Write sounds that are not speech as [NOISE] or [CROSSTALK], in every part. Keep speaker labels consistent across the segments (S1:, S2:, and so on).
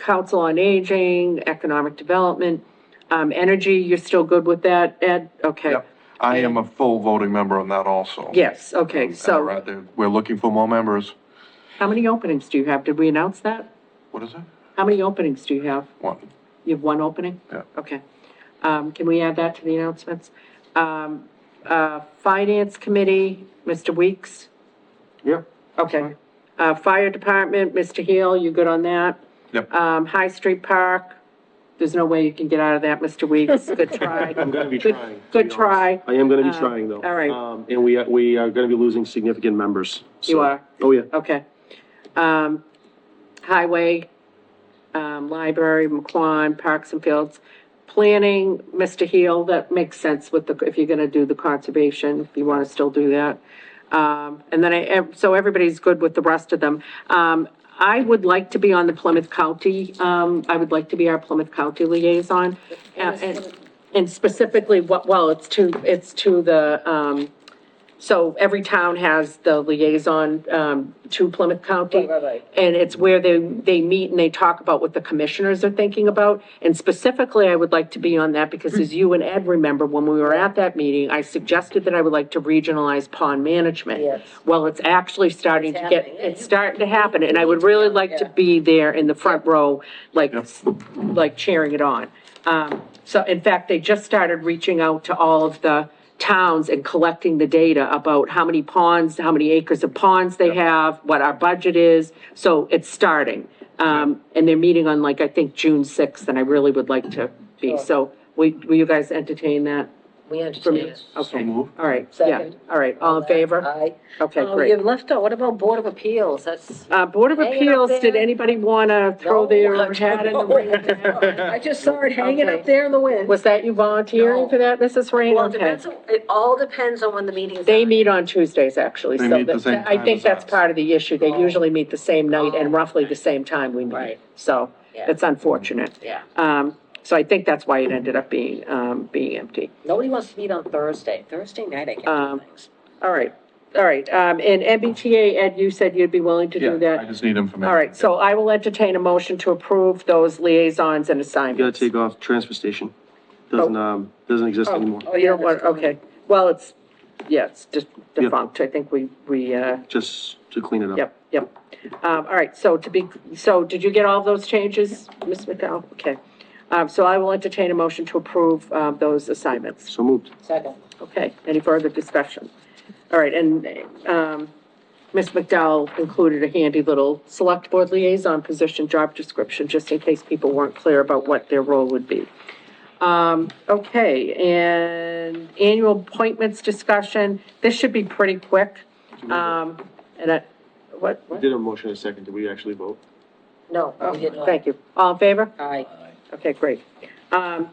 S1: Council on Aging, Economic Development, um, Energy, you're still good with that, Ed? Okay.
S2: Yep. I am a full voting member on that also.
S1: Yes, okay,
S2: And
S1: so
S2: right there, We're looking for more members.
S1: how many openings do you have? Did we announce that?
S2: What is it?
S1: How many openings do you have?
S2: One.
S1: You have one opening?
S2: Yeah.
S1: Okay. Um, can we add that to the announcements? Um, uh, Finance Committee, Mr. Weeks?
S2: Yep.
S1: Okay. Uh, Fire Department, Mr. Heel, you good on that?
S2: Yep.
S1: Um, High Street Park, there's no way you can get out of that, Mr. Weeks, good try.
S3: I'm gonna be
S1: Good-
S3: trying. to
S1: Good
S3: be
S1: try,
S3: honest. I am gonna be
S1: Uh,
S3: trying, though.
S1: all right.
S3: Um, and we, are- we are gonna be losing significant members.
S1: You
S3: so-
S1: are?
S3: Oh, yeah.
S1: okay. Um, Highway, um, Library, McQuon, Parks and Fields. Planning, Mr. Heel, that makes sense with the, if you're gonna do the conservation, if you wanna still do that. Um, and then I, ev- so everybody's good with the rest of them. Um, I would like to be on the Plymouth County, um, I would like to be our Plymouth County liaison. And, and- and specifically, what, well, it's to, it's to the, um, so every town has the liaison, um, to Plymouth County.
S4: Right, right, right.
S1: And it's where they, they meet and they talk about what the commissioners are thinking about. And specifically, I would like to be on that because as you and Ed remember, when we were at that meeting, I suggested that I would like to regionalize pond management.
S4: Yes.
S1: Well, it's actually starting to get,
S4: happening.
S1: it's starting to happen, and I would really like to
S4: Yeah.
S1: be there in the front row, like,
S2: Yeah.
S1: like cheering it on. Um, so in fact, they just started reaching out to all of the towns and collecting the data about how many ponds, how many acres of ponds they have, what our budget is, so it's starting. Um, and they're meeting on like, I think, June sixth, and I really would like to be,
S4: Sure.
S1: so, will, will you guys entertain that?
S4: We
S1: for
S4: understand
S1: me?
S4: it.
S2: So
S1: Okay,
S2: moved.
S1: all right, yeah,
S4: Second.
S1: all right, all in favor?
S4: Aye.
S1: Okay,
S4: Oh,
S1: great.
S4: You've left out, what about Board of Appeals? That's.
S1: Uh, Board of
S4: Hang it up
S1: Appeals, did
S4: there.
S1: anybody want to throw
S4: No,
S1: their
S4: I
S1: hat in the
S4: [LAUGHS] don't know.
S1: ring?
S4: I just saw it hanging
S1: Okay.
S4: up there in the wind.
S1: Was that you volunteering
S4: No.
S1: for that, Mrs. Rain?
S4: Well, it
S1: Okay.
S4: depends, on- it all depends on when the meeting is.
S1: They
S4: on.
S1: meet on Tuesdays, actually,
S2: They
S1: so
S2: meet the
S1: that-
S2: same
S1: I
S2: time
S1: think
S2: as
S1: that's
S2: us.
S1: part of the issue. They
S4: Oh.
S1: usually meet the same night and
S4: Oh.
S1: roughly the same time we meet.
S4: Right.
S1: So
S4: Yeah.
S1: it's unfortunate.
S4: Yeah,
S1: Um, So I think that's why it ended up being, um, being empty.
S4: nobody wants to meet on Thursday. Thursday night I can
S1: Um,
S4: do things.
S1: All right, all right. Um, And MBTA, Ed, you said you'd be willing to do
S2: Yeah, I
S1: that?
S2: just need information.
S1: All right, so I will entertain a motion to approve those liaisons and
S3: You gotta
S1: assignments.
S3: take off transfer station. Doesn't, um, doesn't exist anymore.
S4: Oh,
S1: Oh, you
S4: yeah,
S1: don't want,
S4: that's fine.
S1: okay, well, it's, yeah, it's just
S3: Yeah.
S1: defunct, I think we, we, uh,
S3: Just to clean it up.
S1: yep, yep. Um, all right, so to be, so did you get all those changes, Ms. McDowell? Okay, um, so I will entertain a motion to approve, uh, those assignments.
S3: So moved.
S4: Second.
S1: Okay, any further discussion? All right, and, um, Ms. McDowell included a handy little select board liaison position job description, just in case people weren't clear about what their role would be. Um, okay, and annual appointments discussion, this should be pretty quick. Um, and I, what,
S3: We
S1: what?
S3: Did a motion in a second. Did we actually vote?
S4: No,
S1: Oh,
S4: we did not.
S1: thank you. All in favor?
S4: Aye.
S1: Okay, great. Um,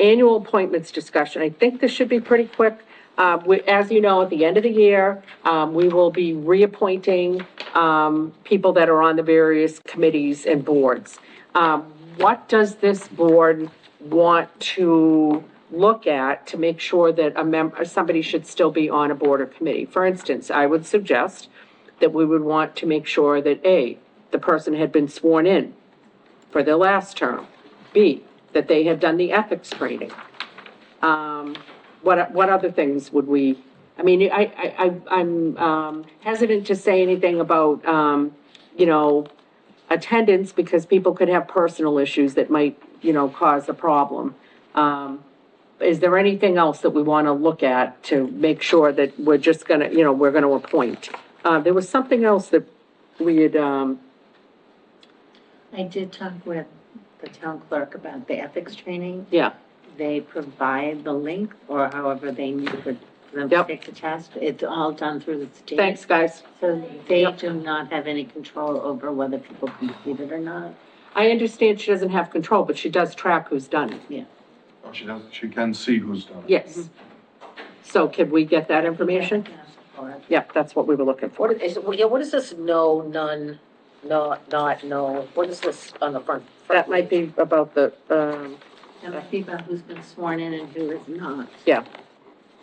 S1: annual appointments discussion, I think this should be pretty quick. Uh, we, as you know, at the end of the year, um, we will be reappointing, um, people that are on the various committees and boards. Um, what does this board want to look at to make sure that a member, somebody should still be on a board or committee? For instance, I would suggest that we would want to make sure that, A, the person had been sworn in for their last term. B, that they had done the ethics training. Um, what, what other things would we, I mean, I, I, I- I'm, um, hesitant to say anything about, um, you know, attendance, because people could have personal issues that might, you know, cause a problem. Um, is there anything else that we want to look at to make sure that we're just gonna, you know, we're gonna appoint? Uh, there was something else that we had, um,
S5: I did talk with the town clerk about the ethics training.
S1: yeah,
S5: They provide the link or however they need for them to
S1: Yep.
S5: take the test. It's all done through the state.
S1: thanks, guys.
S5: So they
S1: Yep.
S5: do not have any control over whether people complete it or not.
S1: I understand she doesn't have control, but she does track who's done it.
S2: Oh, She doesn't, she can see who's done it.
S1: Yes. Mm-hmm. So can we get that information?
S5: Or-
S1: Yep, that's what we were looking for.
S4: What is, what- yeah, what is this no, none, not, not, no? What is this on the front? front
S1: That might be about the, um,
S5: That might be about who's been sworn in and who is not.
S4: page?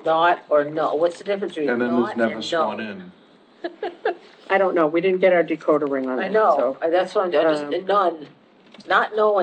S4: Not or no? What's the difference between
S2: And then
S4: not
S2: there's
S4: and no?
S2: never sworn in.
S1: I don't know, we didn't get our decoder ring on
S4: I
S1: that,
S4: know,
S1: so.
S4: I- that's what I'm, I
S1: Um,
S4: just, none, Not no